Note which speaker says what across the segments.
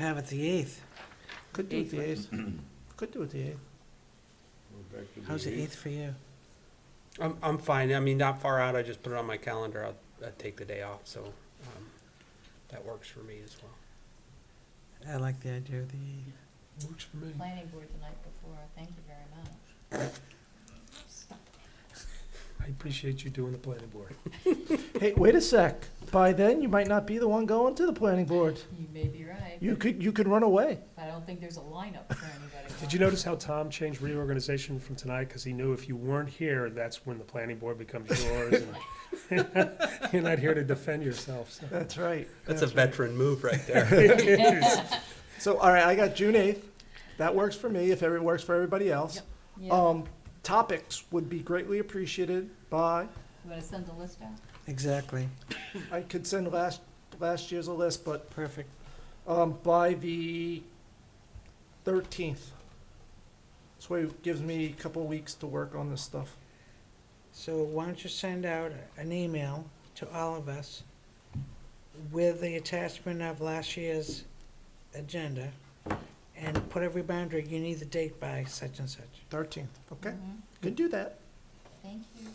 Speaker 1: Have it the eighth.
Speaker 2: Could do it the eighth. Could do it the eighth.
Speaker 3: We're back to
Speaker 1: How's the
Speaker 3: eighth.
Speaker 1: eighth for you?
Speaker 2: I'm, I'm fine. I mean, not far out. I just put it on my calendar. I'll, I'll take the day off, so, um, that works for me as well.
Speaker 1: I like the idea of the eighth.
Speaker 2: Works for me.
Speaker 4: planning board the night before, thank you very much.
Speaker 2: I appreciate you doing the planning board.
Speaker 5: Hey, wait a sec. By then, you might not be the one going to the planning board.
Speaker 4: You may be right,
Speaker 5: You could, you could run away.
Speaker 4: but I don't think there's a lineup for anybody.
Speaker 6: Did you notice how Tom changed reorganization from tonight? Because he knew if you weren't here, that's when the planning board becomes yours. and You're not here to defend yourself, so.
Speaker 5: That's right.
Speaker 2: That's a veteran move right there.
Speaker 5: So, all right, I got June eighth. That works for me, if it works for everybody else.
Speaker 4: Yep. Yeah,
Speaker 5: Um, topics would be greatly appreciated by,
Speaker 4: you wanna send the list out?
Speaker 1: Exactly.
Speaker 5: I could send last, last year's a list, but,
Speaker 1: Perfect.
Speaker 5: um, by the thirteenth. This way it gives me a couple weeks to work on this stuff.
Speaker 1: So why don't you send out an email to all of us with the attachment of last year's agenda and put every boundary, you need the date by such and such.
Speaker 5: Thirteenth, okay,
Speaker 4: Mhm.
Speaker 1: Mm-hmm.
Speaker 5: could do that.
Speaker 4: Thank you.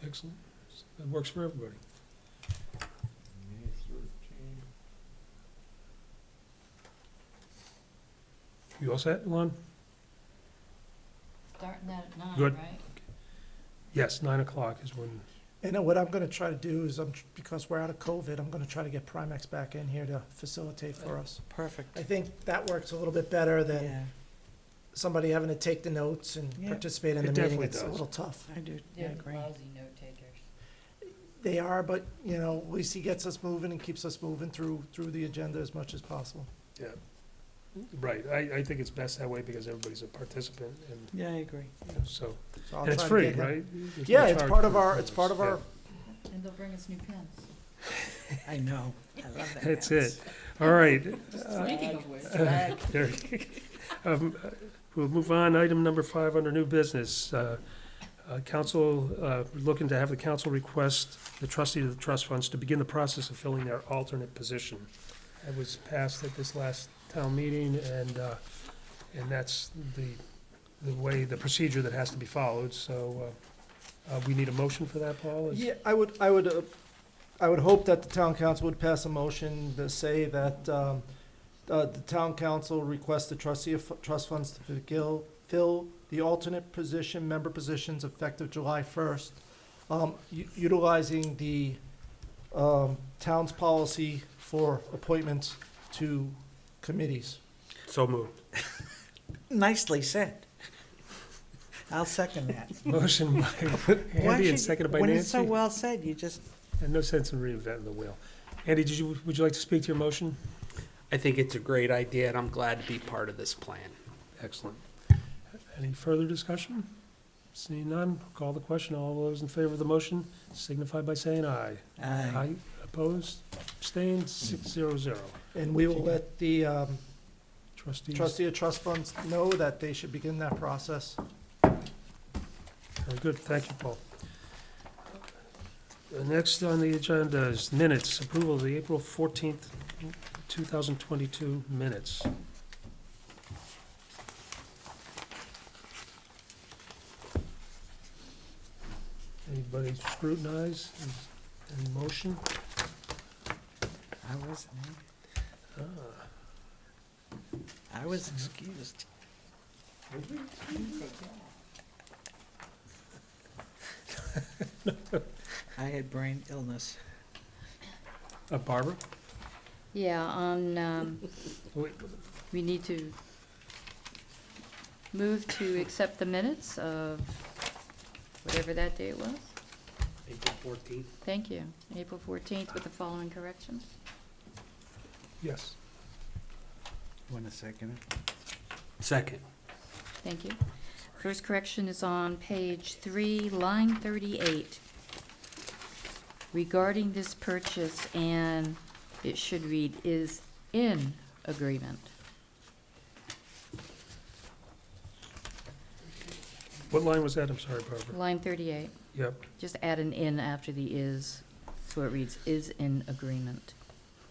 Speaker 2: Excellent. That works for everybody.
Speaker 3: May thirteenth.
Speaker 6: You all set, Lon?
Speaker 4: Starting that at nine,
Speaker 6: Good.
Speaker 4: right?
Speaker 6: Yes, nine o'clock is when,
Speaker 5: And then what I'm gonna try to do is, I'm, tr- because we're out of COVID, I'm gonna try to get Primex back in here to facilitate for us.
Speaker 1: Perfect.
Speaker 5: I think that works a little bit better than
Speaker 1: Yeah,
Speaker 5: somebody having to take the notes and
Speaker 1: Yeah.
Speaker 5: participate in
Speaker 6: It
Speaker 5: the meeting.
Speaker 6: definitely
Speaker 5: It's a
Speaker 6: does.
Speaker 5: little tough.
Speaker 1: I do, I
Speaker 4: They're
Speaker 1: agree.
Speaker 4: lousy note takers.
Speaker 5: They are, but, you know, at least he gets us moving and keeps us moving through, through the agenda as much as possible.
Speaker 6: right, I, I think it's best that way because everybody's a participant and
Speaker 1: Yeah, I agree.
Speaker 6: so,
Speaker 5: So I'll
Speaker 6: and it's
Speaker 5: try to
Speaker 6: free,
Speaker 5: get him-
Speaker 6: right? There's no
Speaker 5: Yeah, it's
Speaker 6: charge
Speaker 5: part of
Speaker 6: for-
Speaker 5: our, it's part of our,
Speaker 4: And they'll bring us new pens.
Speaker 1: I know. I love that.
Speaker 6: That's
Speaker 1: house.
Speaker 6: it. All right,
Speaker 1: Uh,
Speaker 6: Uh,
Speaker 4: Speaking of which.
Speaker 6: There you go. Um, uh, We'll move on, item number five under new business. Uh, uh, Council, uh, looking to have the council request the trustee of the trust funds to begin the process of filling their alternate position. That was passed at this last town meeting, and, uh, and that's the, the way, the procedure that has to be followed, so uh, uh, we need a motion for that, Paul? Is-
Speaker 5: yeah, I would, I would, uh, I would hope that the town council would pass a motion to say that, um, uh, the town council requests the trustee of trust funds to fill, fill the alternate position, member positions effective July first, um, u- utilizing the, um, town's policy for appointments to committees.
Speaker 2: So moved.
Speaker 1: Nicely said. I'll second that.
Speaker 6: Motion by
Speaker 1: Why
Speaker 6: Andy and
Speaker 1: should-
Speaker 6: seconded by
Speaker 1: When it's so
Speaker 6: Nancy.
Speaker 1: well said, you just,
Speaker 6: And no sense in reinventing the wheel. Andy, did you, would you like to speak to your motion?
Speaker 2: I think it's a great idea and I'm glad to be part of this plan.
Speaker 6: Excellent. Any further discussion? Seeing none, call the question. All those in favor of the motion signify by saying aye.
Speaker 1: Aye.
Speaker 6: Opposed, abstained, six zero zero.
Speaker 5: And we will let the, um,
Speaker 6: Trustees,
Speaker 5: trustee of trust funds know that they should begin that process.
Speaker 6: very good. Thank you, Paul. The Next on the agenda is minutes, approval of the April fourteenth, two thousand twenty-two minutes. Anybody scrutinize? Any motion?
Speaker 1: I wasn't, here.
Speaker 6: Ah,
Speaker 1: I was excused. I had brain illness.
Speaker 6: uh, Barbara?
Speaker 4: Yeah, on, um,
Speaker 6: Wait,
Speaker 4: we need to move to accept the minutes of whatever that date was.
Speaker 2: April fourteenth.
Speaker 4: Thank you. April fourteenth with the following corrections.
Speaker 6: Yes.
Speaker 1: Want a second?
Speaker 2: Second.
Speaker 4: Thank you. First correction is on page three, line thirty-eight. Regarding this purchase, and it should read, is in agreement.
Speaker 6: What line was that? I'm sorry, Barbara.
Speaker 4: Line thirty-eight,
Speaker 6: Yep.
Speaker 4: just add an in after the is, so it reads, is in agreement.